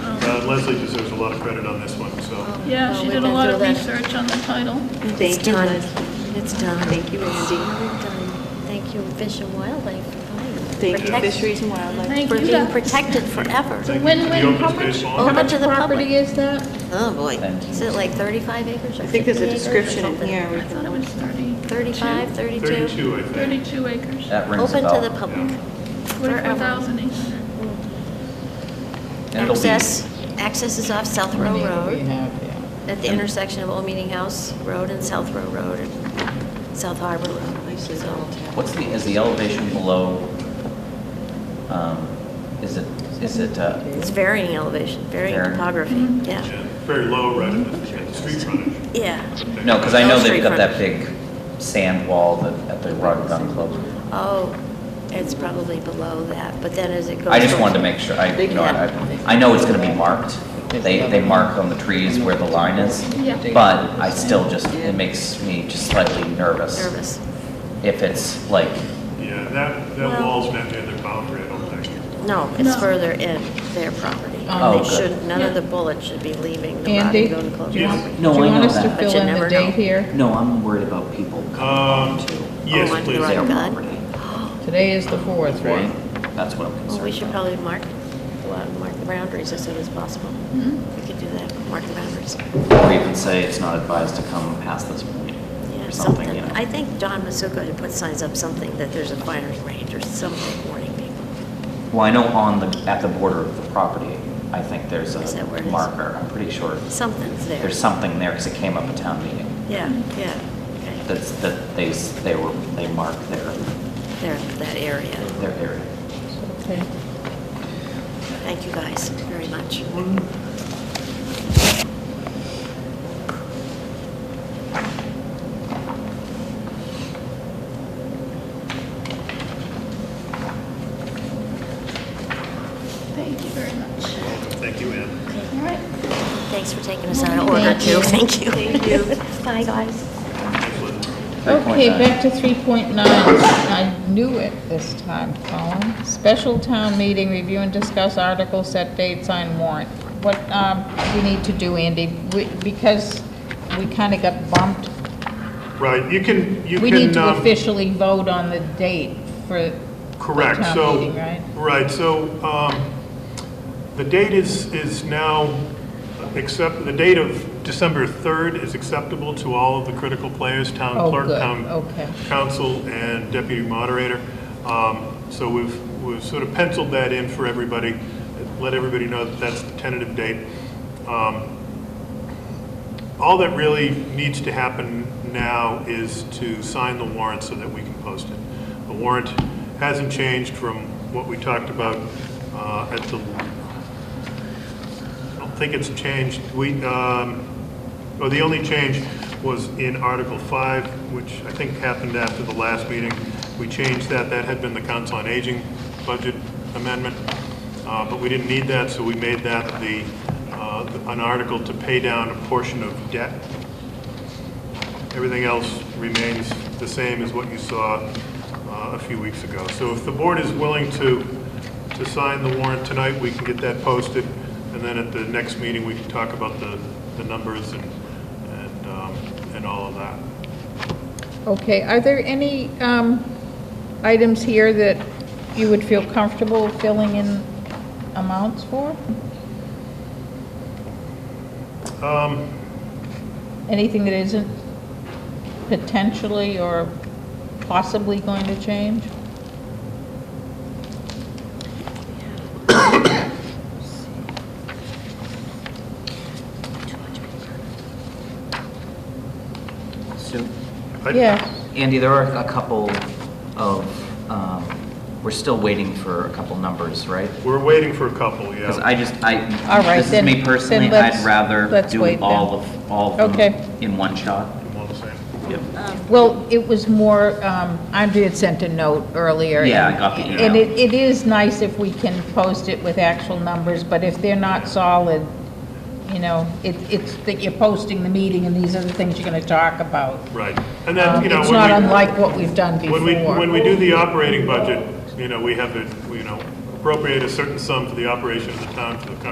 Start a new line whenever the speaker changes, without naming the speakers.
uh, Leslie deserves a lot of credit on this one, so.
Yeah, she did a lot of research on the title.
Thank
It's
you,
done.
Leslie.
It's done.
Thank you, Andy.
We're done. Thank you, Fish and Wildlife. for
Thank you,
protect-
Fisheries and Wildlife.
Thank
For
you.
being
guys.
protected forever.
Thank you.
Win-win,
The open
how
space
much,
law.
how
Open
much
to the public.
property is that?
Oh, boy.
Thank you.
Is it like 35 acres or 50 acres or something?
I think there's a description in here.
I thought it was 30.
35, 32?
32, I think.
32 acres,
That rings a
Open
bell.
to the public. Forever.
44,800.
And it'll be-
Access, access is off South Row
We
Road,
have, yeah.
at the intersection of Old Meeting House Road and South Row Road, and South Harbor Road. So
What's the, is the elevation below, um, is it, is it, uh,
It's varying elevation, varying
Varying.
topography,
Mm-hmm.
yeah.
Yeah, Very low right at the at the street frontage.
Yeah.
no, because I know
No
they've
street
got that
frontage.
big sand wall that, at the Rock Gun Club.
Oh, it's probably below that, but then as it goes.
I just wanted to make sure, I, you know, I, I know it's gonna be marked. They, they mark on the trees where the line is.
Yeah.
But I still just, it makes me just slightly nervous
Nervous.
if it's like,
Yeah, that, that
Well-
wall's not near their boundary, I don't think.
No, it's
No.
further in their property.
Oh,
They
good.
should, none of
Yeah.
the bullets should be leaving the
Andy,
Rodney Gun
do you want,
Club
do
Yes.
property.
you
No, I
want
know
us to
that.
fill
But you
in the
never know.
date here?
no, I'm worried about people coming
Um,
onto
Yes,
Oh, on the
please.
right
their
gun?
property.
Today is the fourth, right?
That's what I'm concerned
Well, we should
about.
probably mark, go out and mark the boundaries as soon as possible.
Mm-hmm.
We could do that, mark the boundaries.
Or even say it's not advised to come past this point,
Yeah,
or something, you know.
I think Don Masuko had put signs up something that there's a firing range or something warning people.
Well, I know on the, at the border of the property, I think there's
Is
a
that where it is?
marker, I'm pretty sure.
Something's there.
There's something there, because it came up at town meeting,
Yeah, yeah. okay.
that's, that they, s- they were, they marked their,
There, that area.
their area.
Okay.
Thank you guys very much.
Thank you very much.
Thank you, Ann.
All right.
Thanks for taking us out of order
Thank you.
too. Thank you.
Thank you.
Bye, guys.
Thanks, Leslie.
Okay,
3.9.
back to 3.9. I knew it this time, Colin. Special town meeting, review and discuss articles, set date, sign warrant. What um, we need to do, Andy, we- because we kind of got bumped,
Right, you can, you can.
we need to
um,
officially vote on the date for
Correct,
town
so.
meeting, right?
Right, so um, the date is, is now, except, the date of December 3rd is acceptable to all of the critical players, town
Oh,
clerk,
good,
town
okay.
council, and deputy moderator. Um, So we've, we've sort of penciled that in for everybody, let everybody know that that's the tentative date. Um, All that really needs to happen now is to sign the warrant so that we can post it. The warrant hasn't changed from what we talked about uh, at the, I don't think it's changed. We, um, well, the only change was in Article 5, which I think happened after the last meeting. We changed that, that had been the Council on Aging budget amendment, uh, but we didn't need that, so we made that the, uh, an article to pay down a portion of debt. Everything else remains the same as what you saw uh, a few weeks ago. So if the board is willing to, to sign the warrant tonight, we can get that posted, and then at the next meeting, we can talk about the, the numbers and, and, um, and all of that.
Okay, are there any um, items here that you would feel comfortable filling in amounts for?
Um,
Anything that isn't potentially or possibly going to change?
So,
I-
Yes.
Andy, there are a couple of, um, we're still waiting for a couple numbers, right?
We're waiting for a couple,
Because
yeah.
I just,
All
I,
right,
this is
then-
me
then
personally, I'd
let's-
rather
let's
do
wait
all
then.
of, all of
Okay.
them in one shot.
I'm all the same.
Yep.
Well, it was more, um, Andrea had sent a note earlier.
Yeah, I got the email.
And it, it is nice if we can post it with actual numbers, but if they're not solid, you know, it, it's that you're posting the meeting and these are the things you're going to talk about.
Right. And then,
Um,
you know,
It's
when
not
we-
unlike what we've done before.
When we, when we do the operating budget, you know, we have, to, you know, appropriate a certain sum for the operation of the town for the current